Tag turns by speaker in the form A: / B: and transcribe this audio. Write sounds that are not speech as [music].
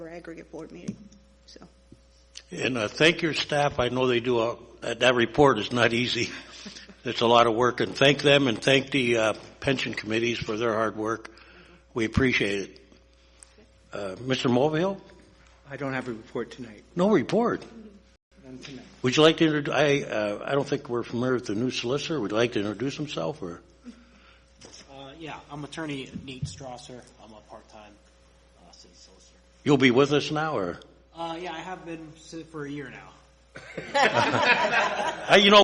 A: aggregate board meeting, so.
B: And uh, thank your staff. I know they do a, that, that report is not easy. [laughs] It's a lot of work, and thank them and thank the uh, pension committees for their hard work. We appreciate it. Uh, Mr. Mulvihill,
C: I don't have a report tonight,
B: no report.
C: none tonight.
B: Would you like to introduce? I uh, I don't think we're familiar with the new solicitor. Would you like to introduce himself or?
D: Uh, yeah, I'm attorney Nate Strasser. I'm a part-time uh, city solicitor.
B: You'll be with us now, or
D: Uh, yeah, I have been si- for a year now.
B: I, you know.